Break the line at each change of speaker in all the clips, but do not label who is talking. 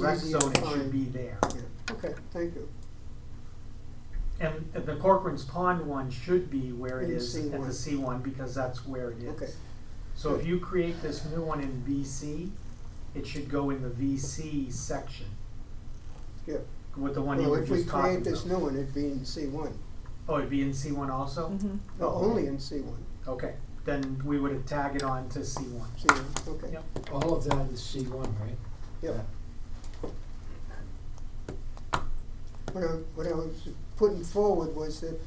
Direct
easier to
zone, it should
find.
be there.
Yeah, okay, thank you.
And the Corcoran's Pond one should be where it
In
is at
C1.
the C one, because that's where it is.
Okay.
So if
Good.
you create this new one in VC, it should go in the VC section
Yeah.
with the one you
Well,
were
if we
just talking
create this
about.
new one, it'd be in C one,
Oh, it'd be in C one also?
Mm-hmm.
Mhm.
no,
Oh.
only in C one,
Okay, then we would tag it on to C one.
C one, okay,
Yep.
All of that is C one, right?
yeah. What I, what I was putting forward was that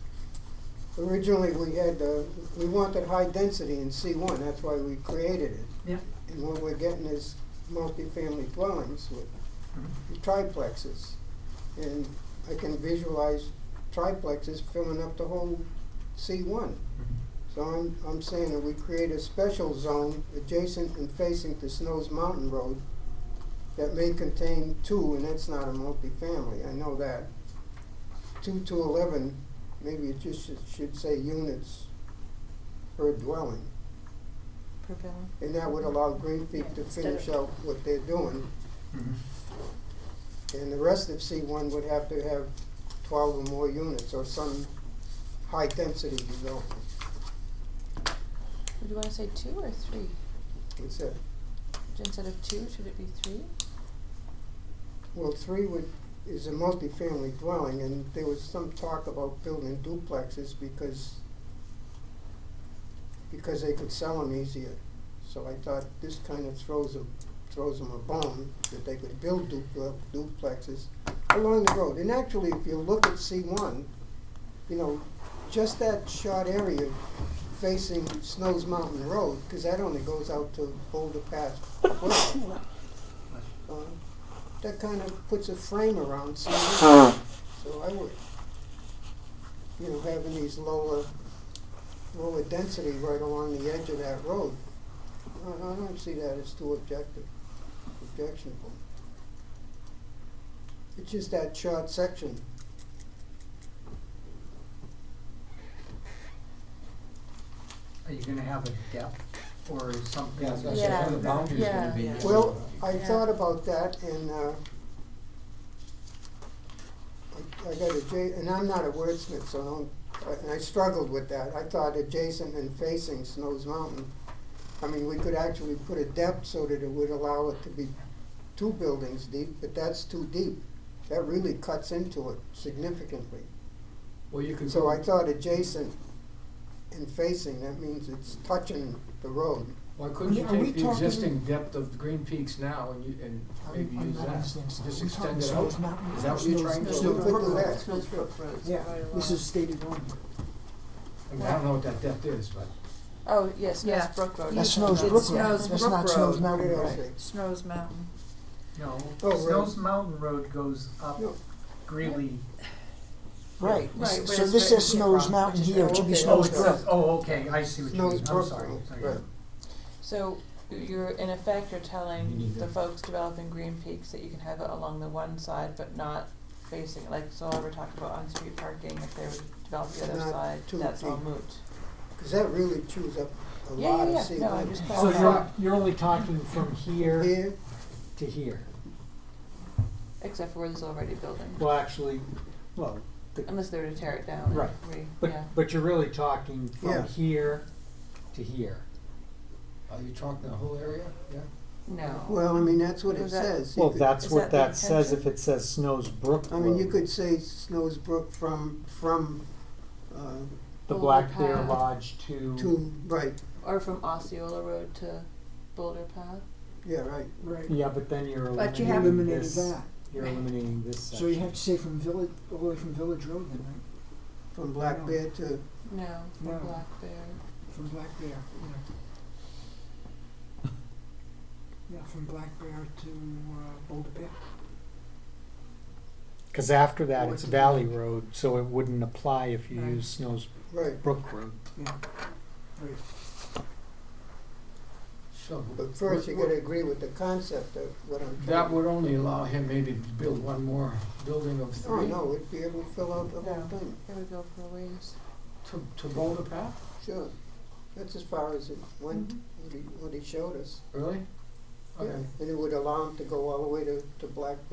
originally we had, uh, we wanted high density in C one, that's why we created it.
Yeah.
And what we're getting is multifamily dwellings with
Mm-hmm.
triplexes. And I can visualize triplexes filling up the whole C one. So I'm, I'm saying that we create a special zone adjacent and facing to Snow's Mountain Road that may contain two, and that's not a multifamily, I know that. Two to eleven, maybe it just should, should say units per dwelling.
Prevailing.
And that would allow Green Peak to finish out what they're doing.
Mhm.
And the rest of C one would have to have twelve or more units or some high density development,
Would you want to say two or three?
it's a,
Instead of two, should it be three?
Well, three would, is a multifamily dwelling, and there was some talk about building duplexes because, because they could sell them easier. So I thought this kind of throws them, throws them a bone, that they could build dupl- duplexes along the road. And actually, if you look at C one, you know, just that short area facing Snow's Mountain Road, because that only goes out to Boulder Pass. Road. Uh, that kind of puts a frame around something. So I would, you know, having these lower, lower density right along the edge of that road, I, I don't see that as too objective, objectionable. It's just that short section.
Are you gonna have a depth or something?
Yeah, so I
Yeah.
said, what are the boundaries gonna
Yeah,
be?
yeah.
Well, I
Yeah.
thought about that and, uh, I, I got adja- and I'm not a wordsmith, so don't, I- and I struggled with that. I thought adjacent and facing Snow's Mountain. I mean, we could actually put a depth so that it would allow it to be two buildings deep, but that's too deep. That really cuts into it significantly.
Well, you could.
So
go-
I thought adjacent and facing, that means it's touching the road.
Why couldn't you
Are we
take the
talking-
existing depth of Green Peaks now and you, and
I'm-
maybe
I'm
use
not
that?
understanding. So
Just
we're talking
extend it
Snow's
out.
Mountain,
Is that what you're
Snow's-
trying to
Snow's
do?
Could do that.
Snowsbrook
Road.
Yeah, this is stated wrong.
I mean, I don't know what that depth is, but
Oh, yes,
Yeah.
that's Brook Road.
That's
you said
Snow's
that.
Brook
It's
Road,
Snow's
that's
Brook
not
Road.
Snow's
What
Mountain
did I
Road.
say?
Snow's Mountain.
No,
Oh, right.
Snow's Mountain Road goes up
No.
Greeley.
Right,
Right,
so
where
so
it's
this
written
says
here
Snow's
from.
Mountain here, it should be
Okay.
Snow's
Oh, it
Brook.
says-
Oh, okay, I see what you
Snow's
mean, I'm
Brook
sorry.
Road,
Sorry.
right.
So you're, in effect, you're
You need
telling the
that.
folks developing Green Peaks that you can have it along the one side, but not facing, like, so I ever talked about on-street parking, if they would develop the other
Not
side,
too
that's all
deep.
moot.
Because that really chews up a
Yeah,
lot
yeah,
of
yeah.
sea
No, I
life.
just
So
Okay.
you're, you're only talking from here
Here,
to here.
Except for where there's already a building,
Well, actually, well, the,
unless they were to tear it down
Right.
and re,
but,
yeah.
but you're really talking
Yeah.
from here to here.
are you talking the whole area? Yeah?
No.
well, I mean, that's what it
Was that-
says. You
Well,
could-
that's
Is
what
that the
that says if
intention?
it says Snow's Brook
I mean, you
Road.
could say Snow's Brook from, from, uh,
The
Boulder
Black Bear
Path.
Lodge to,
to, right,
Or from Osceola Road to Boulder Path.
yeah, right.
Right.
yeah, but then you're
But you
eliminating
Eliminated
this,
that,
you're eliminating this
so you
section.
have to say from Village, all the way from Village Road then, right?
From Black
No.
Bear to,
No,
No.
or Black Bear.
From Black Bear, yeah. Yeah, from Black Bear to uh, Boulder Bear.
Cause after that,
Or
it's
to
Valley
Village.
Road, so it wouldn't apply if you
Right.
use Snow's
right,
Brook Road.
Yeah, right.
So.
but first you gotta agree with the concept of what I'm
That
trying.
would only allow him maybe to build one more building of
Oh,
three
no, it'd be able to fill out the whole
No.
thing,
It would go for a ways.
to, to Boulder Path,
Mm-hmm.
sure. That's as far as it went, what he, what he showed us.
really?
Yeah,
Okay.
And it would allow them to go all the way to, to Black